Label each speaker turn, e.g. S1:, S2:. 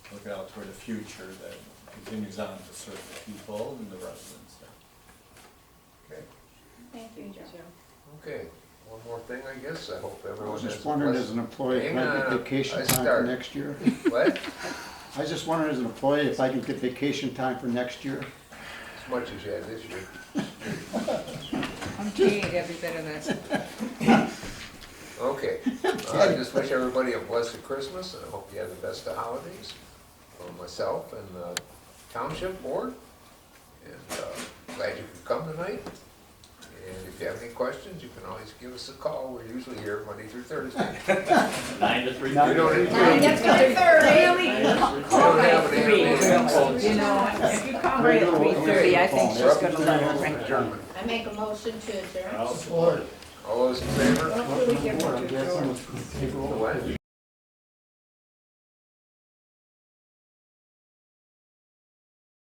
S1: look out toward the future that continues on to serve the people and the residents there.
S2: Okay,
S3: Thank you, Joe.
S2: okay, one more thing, I guess, I hope
S4: I
S2: everyone
S4: was
S2: has.
S4: just
S2: a
S4: wondering, as
S2: pleasant-
S4: an employee, if I
S2: Hang on,
S4: get vacation
S2: I
S4: time for
S2: start.
S4: next year?
S2: What?
S4: I was just wondering, as an employee, if I could get vacation time for next year?
S2: As much as you had this year.
S5: I'm paid every bit of this.
S2: Okay, Uh, I just wish everybody a blessed Christmas, and I hope you have the best of holidays, for myself and the township board. And uh, glad you could come tonight. And if you have any questions, you can always give us a call, we're usually here Monday through Thursday.
S6: Nine to three.
S4: Nine
S2: We don't, we don't
S3: Nine to three thirty.
S2: have an annual meeting.
S5: You know, if you call
S4: Right
S5: me
S4: now, we're
S5: at three
S4: over
S5: thirty,
S4: the
S5: I think
S4: phone.
S5: she's gonna let him
S4: Everything
S5: ring.
S4: else is German.
S3: I make a motion to adjourn.
S6: I'll support.
S2: All those in favor?
S3: Don't really give
S4: Boy,
S3: her
S4: I'm
S3: to
S4: glad
S3: Joe.
S4: someone's gonna take over.
S2: What?